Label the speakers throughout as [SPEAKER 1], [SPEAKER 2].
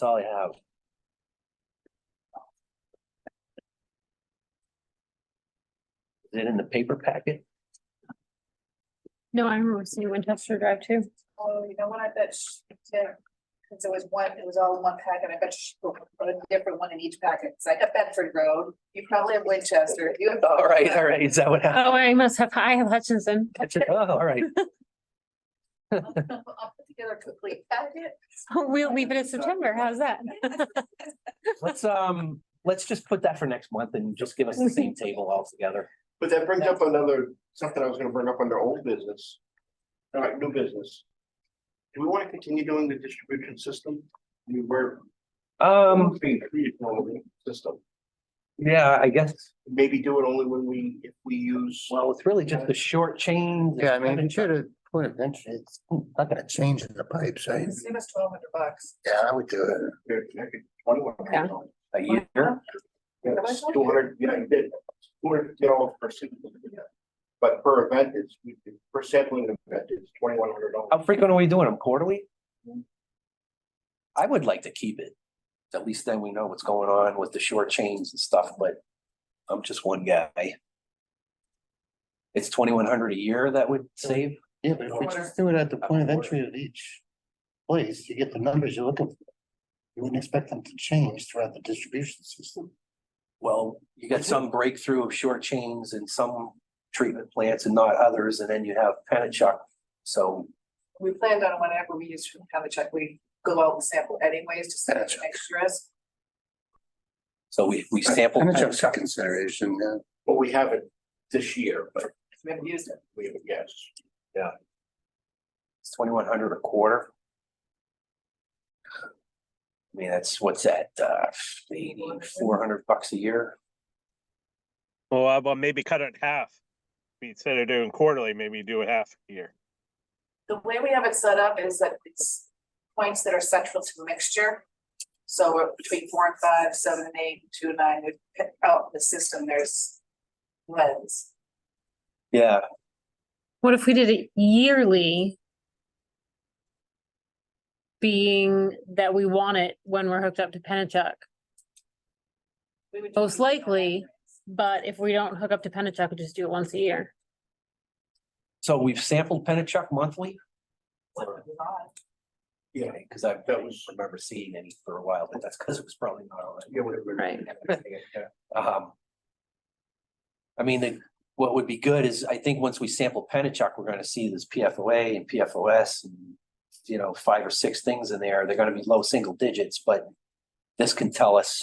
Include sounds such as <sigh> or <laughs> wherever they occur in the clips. [SPEAKER 1] That's all I have. Is it in the paper packet? <laughs>
[SPEAKER 2] No, I remember seeing Winchester Drive too.
[SPEAKER 3] Oh, you know what, I bet she did, cause it was one, it was all in one packet, I bet she put put a different one in each packet, it's like a Bedford Road, you probably have Winchester, you have.
[SPEAKER 1] All right, all right, is that what <laughs> happened?
[SPEAKER 2] Oh, I must have, I have Hutchinson. <laughs>
[SPEAKER 1] Oh, <laughs> all right.
[SPEAKER 3] <laughs> I'll put together a complete packet.
[SPEAKER 2] We'll leave it in September. How's that?
[SPEAKER 1] Let's, um, let's just put that for next month and just give us the same table altogether.
[SPEAKER 4] But that brings up another, something I was gonna bring up under old business. All right, new business. Do we wanna continue doing the distribution system? We were.
[SPEAKER 1] Um,
[SPEAKER 4] Being treated normally, system.
[SPEAKER 1] yeah, I guess,
[SPEAKER 4] Maybe do it only when we, if we use.
[SPEAKER 1] well, it's really just the short chain.
[SPEAKER 5] Yeah, I mean, you should have put it eventually, it's not gonna change in the pipes, I,
[SPEAKER 3] Save us twelve hundred bucks.
[SPEAKER 5] yeah, I would do it.
[SPEAKER 2] Yeah.
[SPEAKER 1] A year.
[SPEAKER 4] Two hundred, yeah, you did, two hundred, you know, per sample. But per event is, per sampling event is twenty-one hundred
[SPEAKER 1] How
[SPEAKER 4] dollars.
[SPEAKER 1] frequent are we doing them? Quarterly? I would like to keep it. At least then we know what's going on with the short chains and stuff, but I'm just one guy. It's twenty-one hundred a year that would save.
[SPEAKER 5] Yeah, but if we just do it at the point of entry of each place, you get the numbers you're looking for. You wouldn't expect them to change throughout the distribution system.
[SPEAKER 1] Well, you got some breakthrough of short chains and some treatment plants and not others, and then you have Penachuk. So
[SPEAKER 3] We planned on whenever we use from the check, we go out and sample anyways, just to make sure it's.
[SPEAKER 1] So we, we sample.
[SPEAKER 5] And it's just a consideration, yeah.
[SPEAKER 4] But we have it this year, but
[SPEAKER 3] we haven't used it.
[SPEAKER 4] we, yes.
[SPEAKER 1] It's twenty-one hundred a quarter. I mean, that's, what's that, uh, eighty, four hundred bucks a year?
[SPEAKER 6] Well, uh, well, maybe cut it in half. Instead of doing quarterly, maybe do it half a year.
[SPEAKER 3] The way we have it set up is that it's points that are central to the mixture. So we're between four and five, seven and eight, two and nine, we pick out the system, there's lens.
[SPEAKER 1] Yeah,
[SPEAKER 2] What if we did it yearly? Being that we want it when we're hooked up to Penachuk,
[SPEAKER 3] We would
[SPEAKER 2] Most
[SPEAKER 3] do-
[SPEAKER 2] likely. but if we don't hook up to Penachuk, we just do it once a year.
[SPEAKER 1] so we've sampled Penachuk monthly?
[SPEAKER 4] Yeah.
[SPEAKER 1] Cause I
[SPEAKER 4] That was-
[SPEAKER 1] remember seeing any for a while, but that's because it was probably not on.
[SPEAKER 4] Yeah, whatever.
[SPEAKER 2] Right.
[SPEAKER 1] Um. I mean, the- what would be good is, I think once we sample Penachuk, we're gonna see this PFOA and PFOS and. You know, five or six things in there, they're gonna be low single digits, but this can tell us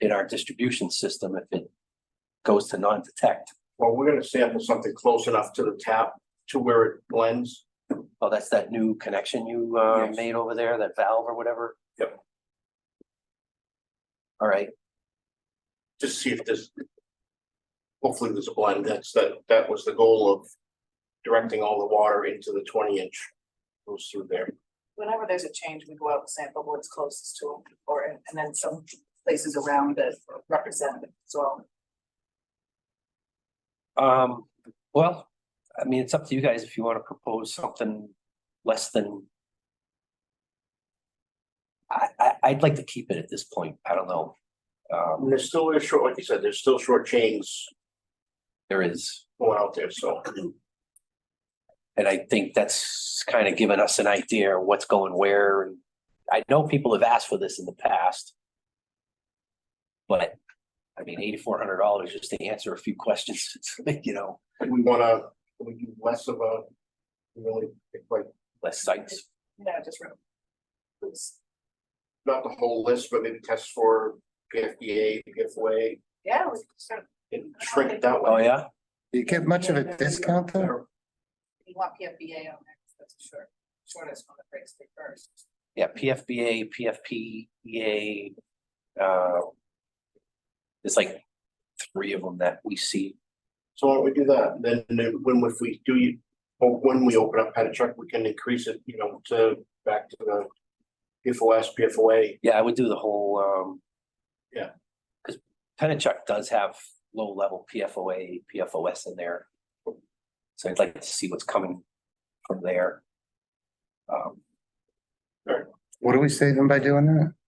[SPEAKER 1] in our distribution system if it. Goes to non-detect,
[SPEAKER 4] Well, we're gonna sample something close enough to the tap to where it blends.
[SPEAKER 1] oh, that's that new connection you uh
[SPEAKER 4] Yes.
[SPEAKER 1] made over there, that valve or whatever?
[SPEAKER 4] Yep.
[SPEAKER 1] All right,
[SPEAKER 4] just see if there's. Hopefully there's a blend, that's that, that was the goal of directing all the water into the twenty inch. Goes through there,
[SPEAKER 3] Whenever there's a change, we go out and sample what's closest to them, or, and then some places around that represent it as well.
[SPEAKER 1] Um, well, I mean, it's up to you guys if you wanna propose something less than. I, I, I'd like to keep it at this point, I don't know.
[SPEAKER 4] and
[SPEAKER 1] Um,
[SPEAKER 4] there's still a short, like you said, there's still short chains
[SPEAKER 1] there is,
[SPEAKER 4] going out there, so.
[SPEAKER 1] and I think that's kinda given us an idea of what's going where, and I know people have asked for this in the past. But, I mean, eighty-four hundred dollars just to answer a few questions, <laughs> you know,
[SPEAKER 4] Do We wanna, do we do less of a. Really, like,
[SPEAKER 1] less sites,
[SPEAKER 3] Yeah, just. re- it's-
[SPEAKER 4] not the whole list, but maybe test for PFDA, PFOA,
[SPEAKER 3] Yeah, we sort of,
[SPEAKER 4] and shrink it that way.
[SPEAKER 1] oh yeah?
[SPEAKER 5] Do you get much of a discount there?
[SPEAKER 3] you want PFBA on there, 'cause that's the short, shortest one that breaks through first.
[SPEAKER 1] Yeah, PFBA, PFPEA, E uh. There's like three of them that we see.
[SPEAKER 4] So why don't we do that, then then when if we do, you- or when we open up Patachuk, we can increase it, you know, to back to the. PFOS, PFOA,
[SPEAKER 1] Yeah, I would do the whole, um.
[SPEAKER 4] Yeah.
[SPEAKER 1] Cause Penachuk does have low level PFOA, PFOS in there. So I'd like to see what's coming from there. Um,
[SPEAKER 5] What are we saving by doing that?